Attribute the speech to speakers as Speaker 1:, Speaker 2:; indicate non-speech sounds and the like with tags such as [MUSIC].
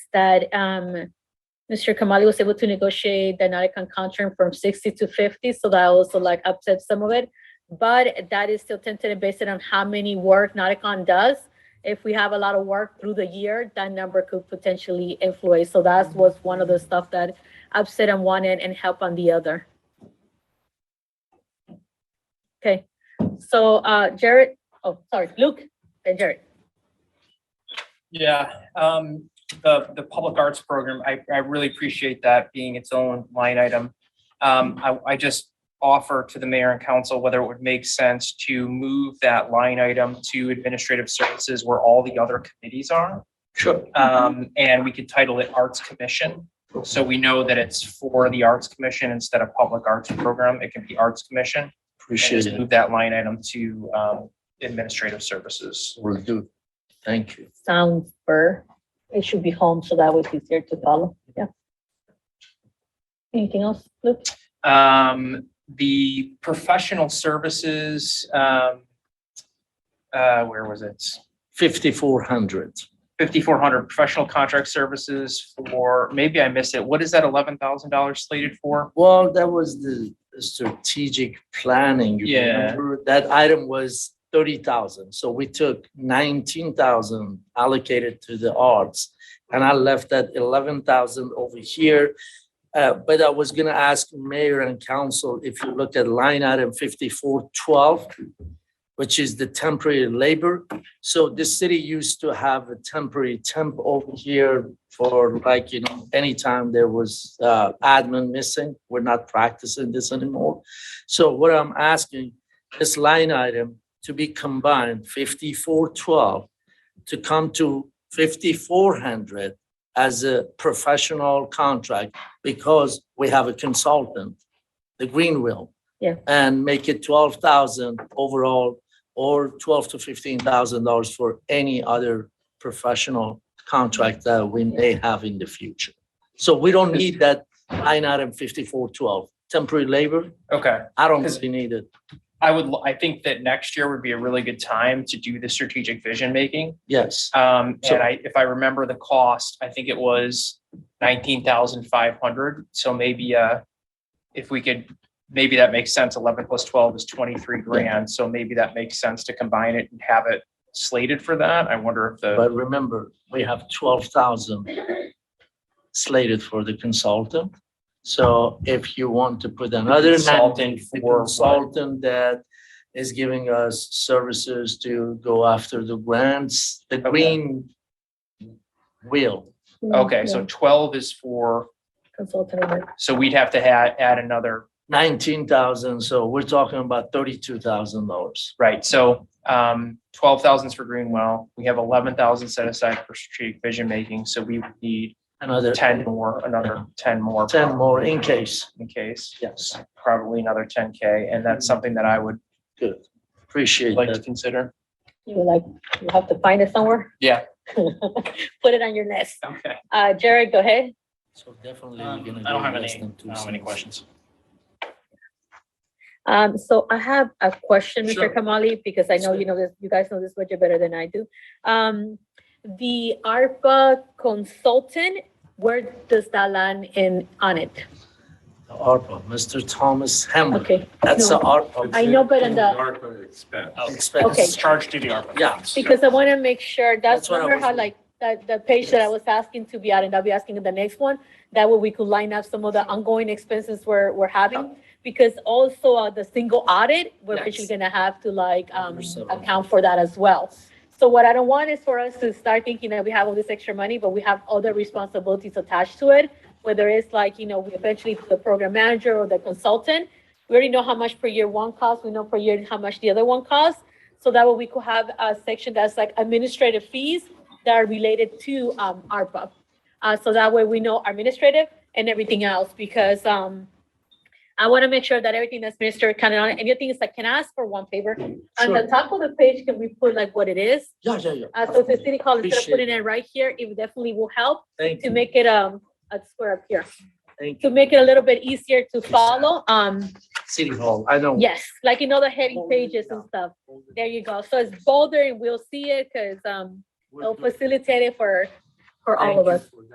Speaker 1: that um, Mr. Kamali was able to negotiate the Nauticon contract from sixty to fifty, so that also like upset some of it. But that is still tentative based on how many work Nauticon does. If we have a lot of work through the year, that number could potentially influence. So that was one of the stuff that upset on one end and help on the other. Okay, so uh, Jared, oh, sorry, Luke, then Jared.
Speaker 2: Yeah, um, the, the public arts program, I, I really appreciate that being its own line item. Um, I, I just offer to the mayor and council whether it would make sense to move that line item to administrative services where all the other committees are.
Speaker 3: Sure.
Speaker 2: Um, and we could title it Arts Commission. So we know that it's for the Arts Commission instead of Public Arts Program. It can be Arts Commission. and
Speaker 3: Appreciate
Speaker 2: just
Speaker 3: it.
Speaker 2: Move that line item to, um, administrative services.
Speaker 3: Will do. Thank you.
Speaker 1: sounds for, it should be home, so that was easier to follow, yeah. Anything else, Luke?
Speaker 2: Um, the professional services, um, uh, where was it?
Speaker 3: Fifty-four hundred.
Speaker 2: Fifty-four hundred professional contract services for, maybe I missed it. What is that eleven thousand dollars slated for?
Speaker 3: Well, that was the strategic planning. you
Speaker 2: Yeah.
Speaker 3: remember? That item was thirty thousand, so we took nineteen thousand allocated to the arts. And I left that eleven thousand over here. Uh, but I was gonna ask mayor and council, if you look at line item fifty-four twelve, which is the temporary labor. So the city used to have a temporary temp over here for like, you know, anytime there was uh, admin missing, we're not practicing this anymore. So what I'm asking, this line item to be combined, fifty-four twelve, to come to fifty-four hundred as a professional contract because we have a consultant, the Greenwill.
Speaker 1: Yeah.
Speaker 3: And make it twelve thousand overall or twelve to fifteen thousand dollars for any other professional contract that we may have in the future. So we don't need that line item fifty-four twelve, temporary labor.
Speaker 2: Okay.
Speaker 3: I don't think we need it.
Speaker 2: I would, l- I think that next year would be a really good time to do the strategic vision making.
Speaker 3: Yes,
Speaker 2: Um,
Speaker 3: So-
Speaker 2: and I, if I remember the cost, I think it was nineteen thousand five hundred. So maybe, uh, if we could, maybe that makes sense. Eleven plus twelve is twenty-three grand. So maybe that makes sense to combine it and have it slated for that. I wonder if the,
Speaker 3: but remember, we have twelve thousand slated for the consultant. So if you want to put another.
Speaker 2: Consultant
Speaker 3: the
Speaker 2: for what?
Speaker 3: Consultant that is giving us services to go after the grants, the
Speaker 2: Okay.
Speaker 3: green wheel.
Speaker 2: okay, so twelve is for,
Speaker 1: Consultant, work.
Speaker 2: so we'd have to add, add another,
Speaker 3: nineteen thousand, so we're talking about thirty-two thousand dollars.
Speaker 2: right? So, um, twelve thousands for Greenwell. We have eleven thousand set aside for strategic vision making. So we would need
Speaker 3: Another
Speaker 2: ten more, another ten more.
Speaker 3: ten more in case.
Speaker 2: in case.
Speaker 3: Yes,
Speaker 2: probably another ten K, and that's something that I would
Speaker 3: good. Appreciate
Speaker 2: like to
Speaker 3: that.
Speaker 2: consider.
Speaker 1: you were like, you have to find it somewhere?
Speaker 2: Yeah.
Speaker 1: [LAUGHS] Put it on your list.
Speaker 2: Okay.
Speaker 1: Uh, Jared, go ahead.
Speaker 3: So definitely. we're
Speaker 2: Um,
Speaker 3: gonna
Speaker 2: I don't
Speaker 3: do
Speaker 2: have
Speaker 3: less
Speaker 2: any-
Speaker 3: than two
Speaker 2: I don't have any
Speaker 3: cents.
Speaker 2: questions.
Speaker 1: Um, so I have a question,
Speaker 3: Sure.
Speaker 1: Mr. Kamali, because I know
Speaker 3: Sure.
Speaker 1: you know this, you guys know this budget better than I do. Um, the ARPA consultant, where does that land in, on it?
Speaker 3: The ARPA, Mr. Thomas Hamlin,
Speaker 1: Okay.
Speaker 3: that's
Speaker 1: no.
Speaker 3: the ARPA.
Speaker 1: I know, but in the-
Speaker 4: ARPA expense.
Speaker 3: Expense.
Speaker 1: Okay.
Speaker 2: Charged to the ARPA.
Speaker 3: Oh. Yeah,
Speaker 1: Because I want to make sure, that's
Speaker 3: That's what I
Speaker 1: remember
Speaker 3: was
Speaker 1: how
Speaker 3: doing.
Speaker 1: like, that, the page that I was asking to be added, I'll be asking in the next one. That way we could line up some of the ongoing expenses we're, we're having. Because also uh, the single audit, we're
Speaker 3: Yes.
Speaker 1: actually gonna have to like, um,
Speaker 3: Number seven.
Speaker 1: account for that as well. So what I don't want is for us to start thinking that we have all this extra money, but we have other responsibilities attached to it. Whether it's like, you know, we eventually the program manager or the consultant, we already know how much per year one costs, we know per year how much the other one costs. So that way we could have a section that's like administrative fees that are related to um ARPA. Uh, so that way we know administrative and everything else because um I want to make sure that everything that's ministered kind of on, and the other thing is I can ask for one favor. On Uh, the
Speaker 3: Sure.
Speaker 1: top of the page, can we put like what it is?
Speaker 3: yeah, yeah, yeah.
Speaker 1: Uh, so the city hall, instead of
Speaker 3: Appreciate
Speaker 1: putting it right here, it definitely will help
Speaker 3: Thank
Speaker 1: to
Speaker 3: you,
Speaker 1: make it um a square up here,
Speaker 3: thank
Speaker 1: to
Speaker 3: you.
Speaker 1: make it a little bit easier to follow. Um,
Speaker 3: City Hall, I know.
Speaker 1: yes, like in other heading
Speaker 3: Hold it
Speaker 1: pages and
Speaker 3: down.
Speaker 1: stuff. There you go. So it's bolder and we'll see it because um
Speaker 3: We'll
Speaker 1: it'll
Speaker 3: do.
Speaker 1: facilitate it for for all
Speaker 3: Thank
Speaker 1: of
Speaker 3: you
Speaker 1: us.
Speaker 3: for that.